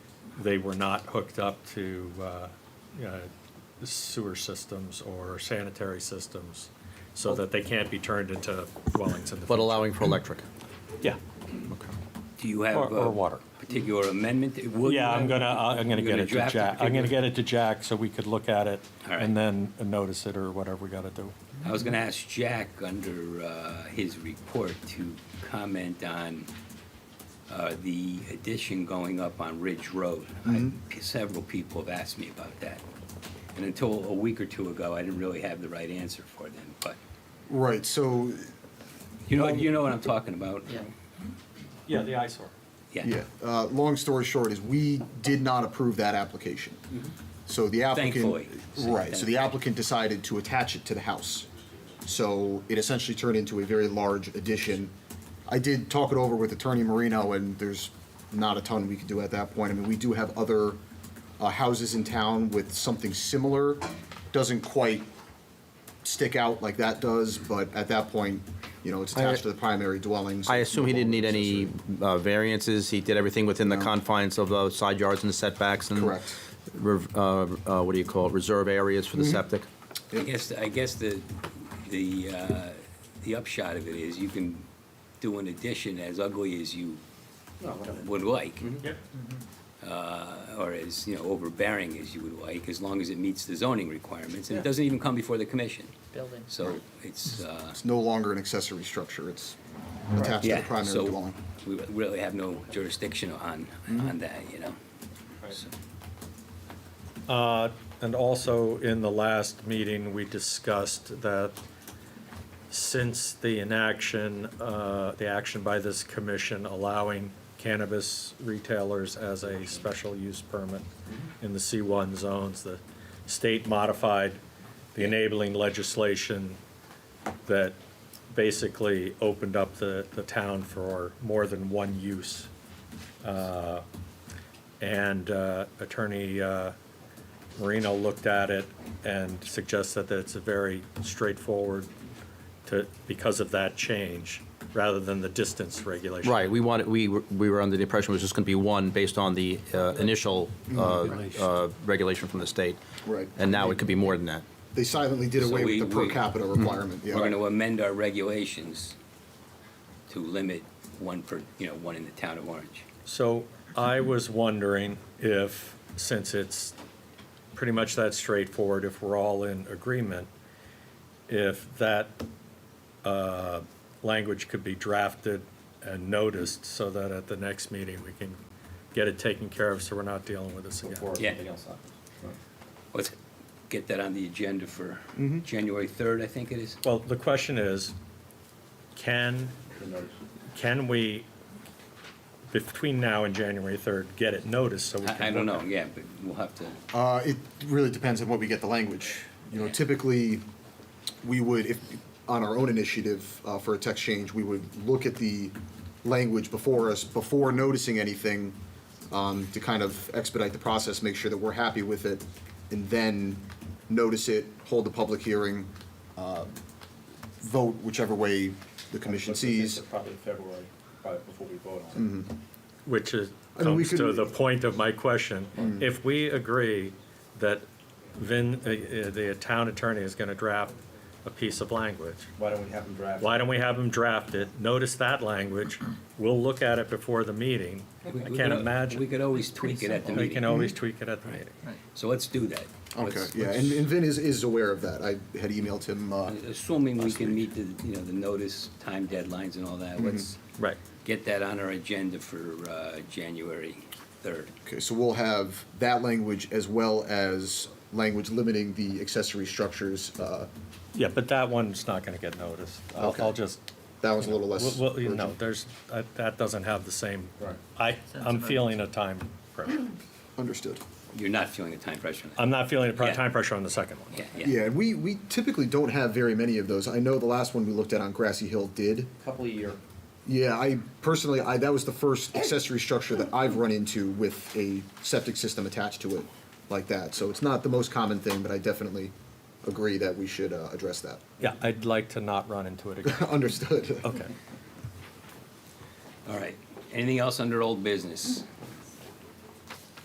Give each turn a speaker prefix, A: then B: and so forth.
A: they were not hooked up to uh, uh, sewer systems or sanitary systems, so that they can't be turned into dwellings in the
B: but
A: future.
B: allowing for electric.
A: Yeah,
C: Do you have?
A: Or- or
C: a
A: water.
C: Particular amendment? Will you
A: yeah, I'm
C: have-
A: gonna, uh, I'm gonna
C: You're
A: get
C: gonna
A: it to
C: draft a
A: Jack, I'm gonna
C: particular-
A: get it to Jack so we could look at it
C: All right.
A: and then notice it or whatever we gotta do.
C: I was going to ask Jack under uh, his report to comment on uh, the addition going up on Ridge Road. I-
A: Mm-hmm.
C: Several people have asked me about that. And until a week or two ago, I didn't really have the right answer for them, but
D: Right, so,
C: you know, you know what I'm talking about?
E: Yeah.
A: Yeah, the eyesore.
D: yeah, uh, long story short is we did not approve that application. So the applicant.
C: Mm-hmm. Thankfully.
D: Right, so the applicant decided to attach it to the house. So it essentially turned into a very large addition. I did talk it over with Attorney Marino, and there's not a ton we could do at that point. I mean, we do have other uh, houses in town with something similar. Doesn't quite stick out like that does, but at that point, you know, it's
B: I-
D: attached to the primary dwelling. so
B: I assume he didn't need any
D: accessory.
B: uh, variances, he did everything within the
D: No.
B: confines of the side yards and the setbacks
C: Mm.
B: and.
D: Correct.
B: rev- uh, uh, What do you call it, reserve areas for the
D: Mm-hmm.
B: septic?
C: I guess, I guess the, the, uh, the upshot of it is you can do an addition as ugly as you would like.
D: Mm-hmm.
C: Uh, Or as, you know, overbearing as you would like, as long as it meets the zoning requirements. And it
A: Yeah.
C: doesn't even come before the commission.
E: Building.
C: So it's, uh,
D: It's no longer an accessory structure, it's attached to the
C: yeah,
D: primary
C: uh, so
D: dwelling. Mm-hmm.
C: we really have no jurisdiction on, on that, you know? So-
A: Uh, And also, in the last meeting, we discussed that since the inaction, uh, the action by this commission allowing cannabis retailers as a special use permit in the C1 zones, the state modified the enabling legislation that basically opened up the, the town for more than one use. Uh, And uh, Attorney uh, Marino looked at it and suggested that it's a very straightforward to, because of that change, rather than the distance regulation.
B: Right, we wanted, we were we were under the impression it was just going to be one based on the uh, initial uh, uh, regulation from the state.
D: Mm-hmm. Right.
B: And now it could be more than that.
D: They silently did
C: So
D: away
C: we-
D: with the per
C: we- Mm-hmm.
D: capita requirement, yeah.
C: We're gonna amend our regulations to limit one per, you know, one in the town of Orange.
A: So I was wondering if, since it's pretty much that straightforward, if we're all in agreement, if that uh, language could be drafted and noticed so that at the next meeting, we can get it taken care of so we're not dealing with this again.
C: Yeah. something Let's get that on the agenda for
A: Mm-hmm.
C: January third, I think it is.
A: Well, the question is, can, can we, between now and January 3rd, get it noticed so we can?
C: I, I
A: look
C: don't know,
A: at it?
C: yeah, but we'll have to,
D: Uh, it really depends on what we get the language. You know, typically, we would, if, on our own initiative, uh, for a text change, we would look at the language before us, before noticing anything, um, to kind of expedite the process, make sure that we're happy with it, and then notice it, hold the public hearing, uh, vote whichever way the commission sees.
F: Probably February, probably before we vote
D: Mm-hmm.
F: on it.
A: Which is,
D: I mean, we
A: comes to
D: could- Mm.
A: the point of my question. If we agree that Vin, uh, uh, the town attorney is going to draft a piece of language,
F: Why don't we have them draft?
A: why don't we have him draft it, notice that language, we'll look at it before the meeting.
C: We-
A: I
C: we
A: can't
C: could- We
A: imagine,
C: could always tweak it at the
A: we can
C: meeting.
A: always tweak it at the meeting.
C: So let's do that.
D: Okay,
C: Let's-
D: yeah, and, and Vin is, is aware of that. I had emailed him, uh,
C: Assuming we can meet the, you know, the notice, time deadlines and all that,
A: Mm-hmm.
C: let's
A: Right.
C: get that on our agenda for, uh, January third.
D: Okay, so we'll have that language as well as language limiting the accessory structures. uh,
A: Yeah, but that one's not going to get noticed. I'll
D: Okay.
A: I'll just
D: That one's a little less.
A: Well, well, you know,
D: urgent.
A: there's, that- that doesn't have the same,
F: Right.
A: I,
E: Sense
A: I'm
E: of
A: feeling a time pressure.
D: Understood.
C: You're not feeling the time pressure on that?
A: I'm not feeling a pro-
C: Yeah.
A: time pressure on the second one.
C: Yeah, yeah.
D: Yeah, and we, we typically don't have very many of those. I know the last one we looked at on Grassy Hill did.
F: Couple of year.
D: Yeah, I personally, I, that was the first accessory structure that I've run into with a septic system attached to it like that. So it's not the most common thing, but I definitely agree that we should uh, address that.
A: Yeah, I'd like to not run into it again.
D: Understood.
A: Okay.
C: All right. Anything else under old business?